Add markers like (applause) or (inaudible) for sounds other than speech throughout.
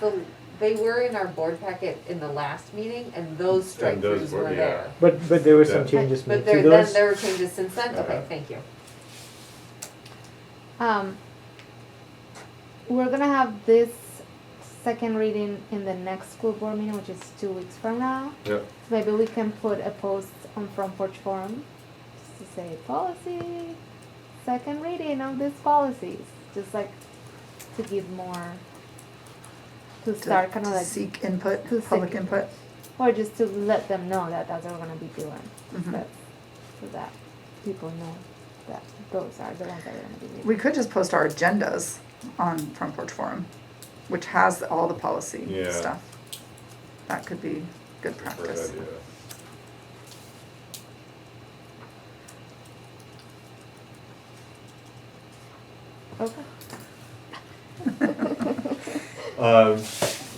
the, they were in our board packet in the last meeting and those strike And those throughs were- were yeah. there. But, but there were Yeah. some changes But made there, to then those. there were changes since then, okay, Okay. thank you. Um, we're gonna have this second reading in the next school board meeting, which is two weeks from now. Yep. So maybe we can put a post on Front Porch Forum just to say policy, second reading of these policies, just like to give more, to start kind of like, Seek input, to public seek- input. or just to let them know that that's what we're gonna be doing. Mhm. But- So that people know that those are the ones that we're gonna be doing. We could just post our agendas on Front Porch Forum, which has all the policy Yeah. stuff. That could be good practice. Great idea. Okay. Um,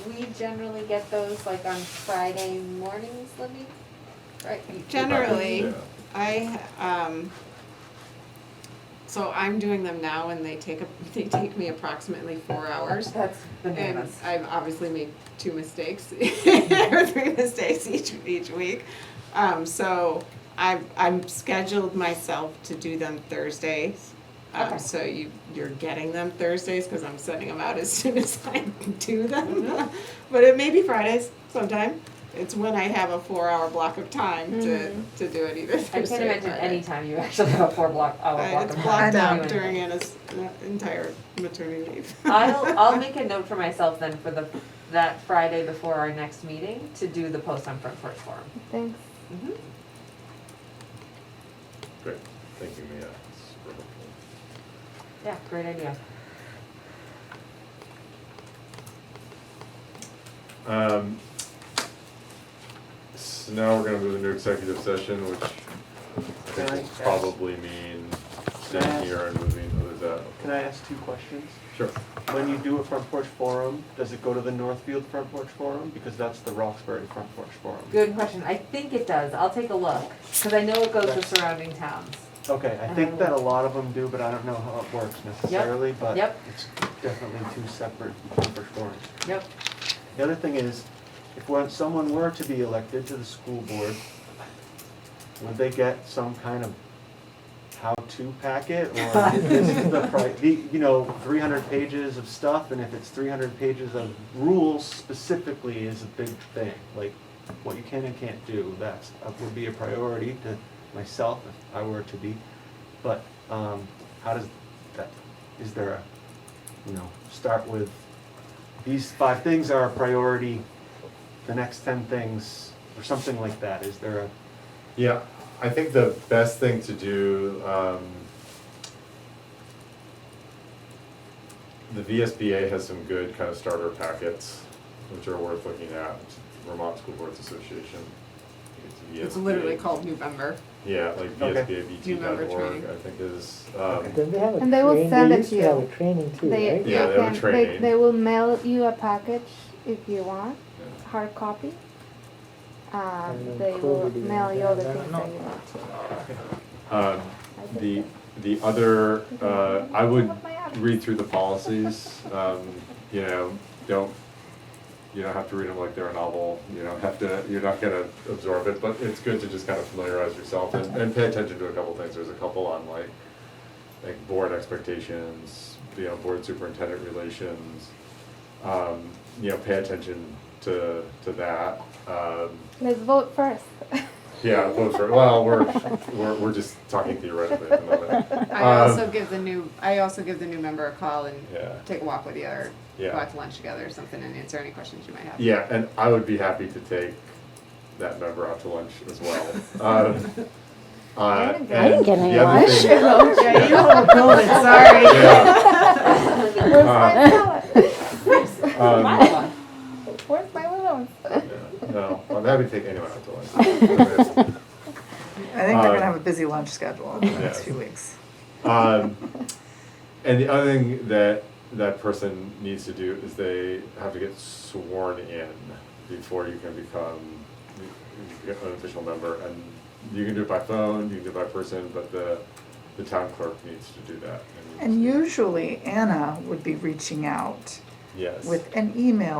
We generally get those like on Friday mornings, Libby? Right? you- Generally, Yeah. I, um, so I'm doing them now and they take, a- (laughs) they take me approximately four hours. That's And bananas. I've obviously made (laughs) two mistakes, or three mistakes each, each week. Um, so I've, I'm scheduled myself to do them Thursdays. Okay. Um, so you, you're getting them Thursdays, cause I'm sending them out as (laughs) soon as I do Mm-hmm. them. But it may be Fridays sometime. It's when I have a four-hour block of time to, to do it either Mm-hmm. I Thursday can't or imagine Friday. any time you actually have a four block, hour Uh, block of It's time. blocked I know. out during Anna's uh, entire maternity leave. I'll, I'll make a note for myself then for the, that Friday before our next meeting to do the post on Front Porch Forum. Thanks. Mm-hmm. Great, thank you, Mia. It's super helpful. Yeah, great idea. Um, so now we're gonna move into executive session, which I think Can I will ask- probably mean Can staying I here and moving, oh, is that? Can I ask two questions? Sure. When you do a front porch forum, does it go to the Northfield front porch forum? Because that's the Roxbury front porch forum. Good question. I think it does. I'll take a look, cause I know it goes to Yes. surrounding towns. Okay, I think that a lot of them do, but I don't know how it works necessarily, but yep. it's definitely two separate front porch forums. Yep. The other thing is, if one- someone were to be elected to the school board, would they get some kind of how-to packet? Or this is the, pri- the- you know, 300 pages of stuff, and if it's 300 pages of rules specifically is a big thing. Like, what you can and can't do, that's, uh, would be a priority to myself if I were to be. But um, how does that, is there a, you know, start with these five things are a priority, the next ten things, or something like that, is there a? Yeah, I think the best thing to do, um, the VSBA has some good kind of starter packets, which are worth looking at, Vermont School Boards Association. (laughs) It's literally VSBA. called November. Yeah, like Okay. Do you remember vsbabt.org, training? I think is, um, Then they have a And they will train, send they it used to to have you. a training too, They, right? you Yeah, they have a can- They, training. they will mail you a package if you want, hard copy. And Um, then they will COVID is mail you all the there, things no. that you want. um, I think the, so. the other, uh, I would Look my app. read through the policies, um, you know, don't, you don't have to read them like they're a novel, you don't have to, you're not gonna absorb it, but it's good to just kind of familiarize yourself and, and pay attention to a couple things, there's a couple on like, like board expectations, you know, board superintendent relations, um, you know, pay attention to, to that, um, Let's (laughs) vote first. Yeah, vote for, well, we're, we're, we're just talking theoretically at the moment. I Um, also give the new, I also give the new member a call and Yeah. take a walk with you or go Yeah. out to lunch together or something and answer any questions you might have. Yeah, and I would be happy to take that member out to lunch as well. Um, (laughs) uh, I and didn't get any the other lunch. (laughs) thing- Yeah, you all build it, sorry. Yeah, (laughs) Where's my salad? (laughs) um, Mine. Where's my lemons? yeah, no, I'm happy to take anyone out to (laughs) lunch. I think they're Uh, gonna have a busy lunch schedule in the next yes. few weeks. Um, and the other thing that that person needs to do is they have to get sworn in before you can become an official member. And you can do it by phone, you can do it by person, but the the town clerk needs to do that. And usually Anna would be reaching out Yes. with an email